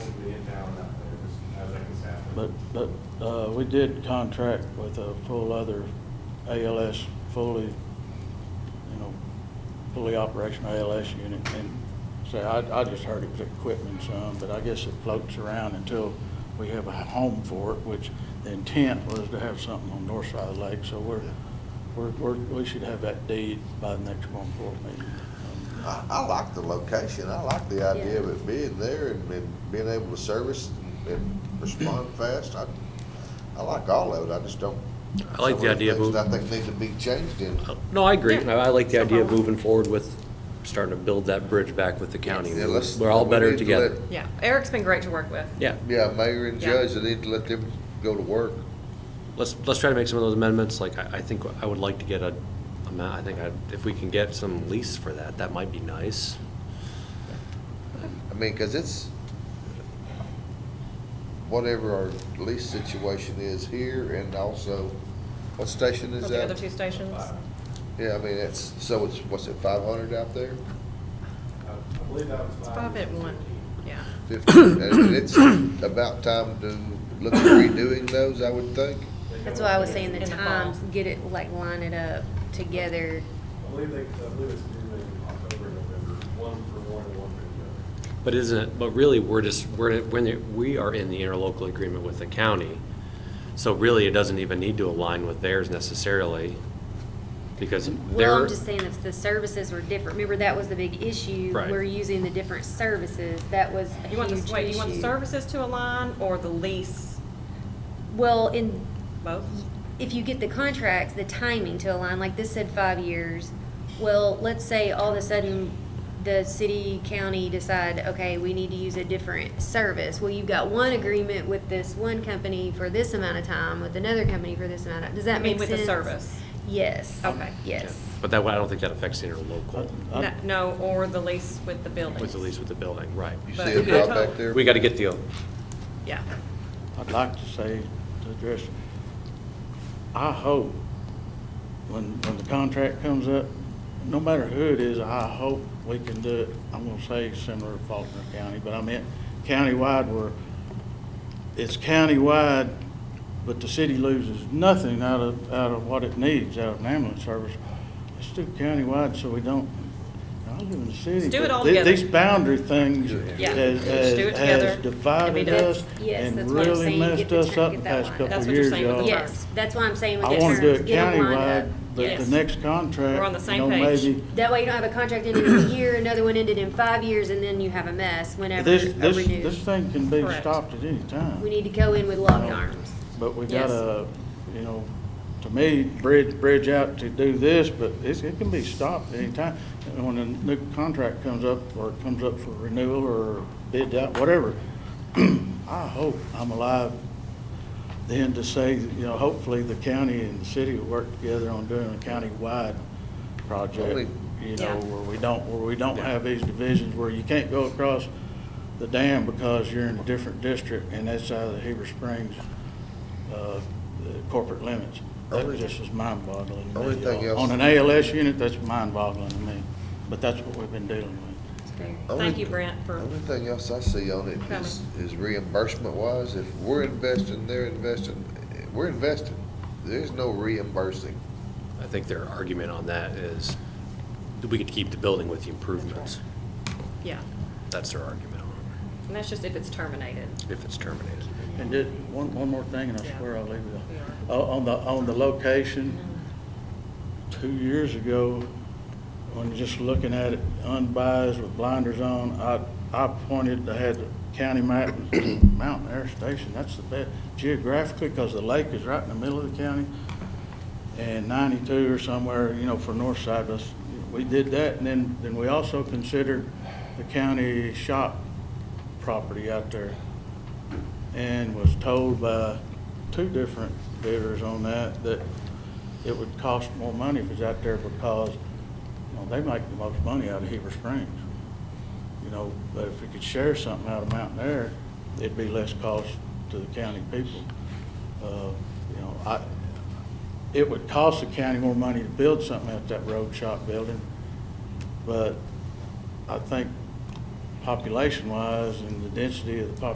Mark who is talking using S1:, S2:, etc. S1: But, but, uh, we did contract with a full other ALS, fully, you know, fully operational ALS unit. And say, I, I just heard it was equipment some, but I guess it floats around until we have a home for it, which the intent was to have something on the north side of the lake. So we're, we're, we're, we should have that deed by the next one board meeting.
S2: I, I like the location, I like the idea of it being there and, and being able to service and respond fast, I, I like all of it, I just don't.
S3: I like the idea of
S2: Some of the
S3: moving, Oh,
S2: things I think need to be changed in,
S3: no, I agree.
S4: Yeah.
S3: I I like the
S4: No
S3: idea of
S4: problem.
S3: moving forward with starting to build that bridge back with the county.
S2: Yeah, let's-
S3: We're all
S2: we
S3: better
S2: need to
S3: together.
S2: let-
S4: Yeah, Eric's been great to work with.
S3: Yeah,
S2: yeah, mayor and
S4: Yeah.
S2: judge, they need to let them go to work.
S3: let's, let's try to make some of those amendments. Like, I, I think I would like to get a amount, I think I, if we can get some lease for that, that might be nice.
S2: I mean, cause it's, whatever our lease situation is here and also, what station
S4: With
S2: is
S4: the other
S2: that?
S4: two stations.
S2: Yeah, I mean, it's, so it's, what's it, five hundred out there?
S5: I believe that was
S4: It's five at one, yeah.
S2: 15, and it's about time to look at redoing those, I would think.
S6: That's why I was saying the
S4: In the fall.
S6: times, get it, like line it up together.
S5: I believe they, I believe it's due in October, November, one for one and one for
S3: But isn't, it? but really, we're just, we're, when it- we are in the interlocal agreement with the county, so really, it doesn't even need to align with theirs necessarily, because
S6: Well,
S3: they're,
S6: I'm just saying if the services were different, remember that was the big issue.
S3: Right.
S6: We're using the different services, that was a
S4: You want
S6: huge
S4: the, wait, you want the
S6: issue.
S4: services to align or the lease,
S6: Well, in,
S4: both?
S6: if you get the contracts, the timing to align, like this said five years. Well, let's say all of a sudden, the city, county decide, okay, we need to use a different service. Well, you've got one agreement with this one company for this amount of time, with another company for this amount of, does
S4: I
S6: that
S4: mean,
S6: make
S4: with
S6: sense?
S4: the service.
S6: Yes.
S4: Okay.
S6: Yes.
S3: but that, I don't think that affects the interlocal
S1: I- I-
S4: No- No, or the lease with the buildings.
S3: Um, with the lease with the building, right.
S2: You see
S4: But
S2: it
S4: I
S2: out
S4: told-
S2: back there?
S3: We gotta get the,
S4: Yeah.
S1: I'd like to say, to address, I hope when, when the contract comes up, no matter who it is, I hope we can do it, I'm gonna say similar to Faulkner County, but I meant countywide where it's countywide, but the city loses nothing out of, out of what it needs, out of an ambulance service. Let's do countywide so we don't, I live in the city.
S4: Let's do it
S1: but
S4: all
S1: thi-
S4: together.
S1: These boundary things
S4: Yeah.
S1: has,
S4: Let's do it
S1: has- has
S4: together.
S1: divided
S4: It'll be
S1: us
S6: done. Yes,
S1: and
S6: that's what I'm
S1: really
S6: saying. Get
S1: messed
S6: the
S1: us
S6: check,
S1: up the
S6: get that
S1: past
S6: line.
S1: couple
S4: That's
S1: of
S4: what you're
S1: years,
S4: saying with the
S1: y'all.
S4: term.
S6: Yes, that's why I'm saying with
S1: I
S6: the
S1: want to do
S6: terms,
S1: it
S6: get them lined
S1: countywide,
S6: up.
S1: but the
S4: Yes.
S1: next contract.
S4: We're on the same
S1: you know,
S4: page.
S1: maybe
S6: That way you don't have a contract ended in a year, another one ended in five years, and then you have a mess whenever a
S1: This, this, this
S6: renew.
S1: thing can be
S4: Correct.
S1: stopped at any
S6: We
S1: time,
S6: need to go in with locked arms.
S1: but we
S4: Yes.
S1: gotta, you know, to me, bridge, bridge out to do this, but it's, it can be stopped at any time. And when a new contract comes up, or it comes up for renewal, or bid out, whatever, I hope I'm alive then to say, you know, hopefully the county and the city will work together on doing a county-wide
S2: Only-
S1: project, you know,
S4: Yeah.
S1: where we don't, where we don't have these divisions, where you can't go across the dam because you're in a different district, and that's out of the Heber Springs, uh, corporate limits. That
S2: Only-
S1: just is mind-boggling to
S2: only
S1: me,
S2: thing
S1: y'all. On
S2: else-
S1: an ALS unit, that's mind-boggling to me, but that's what we've been dealing with.
S6: It's fair.
S4: Thank you, Brent, for,
S2: Only thing else I see on it is, is reimbursement wise, if we're investing, they're investing, eh, we're investing. There's no reimbursing.
S3: I think their argument on that is, that we could keep the building with the improvements.
S4: yeah.
S3: That's their argument on
S4: And that's just if it's terminated.
S3: it, if it's terminated.
S1: And did, one, one more thing, and I
S4: Yeah.
S1: swear I'll leave it. O- uh, On the, on the location, two years ago, when just looking at it unbiased with blinders on, I, I pointed, I had the county map, Mountain Air Station, that's the best geographically, because the lake is right in the middle of the county. And ninety-two or somewhere, you know, for north side, us, we did that, and then, then we also considered the county shop property out there and was told by two different bidders on that, that it would cost more money if it's out there because, you know, they make the most money out of Heber Springs. You know, but if we could share something out of Mountain Air, it'd be less cost to the county people. Uh, You know, I, it would cost the county more money to build something at that road shop building, but I think population-wise and the density of the population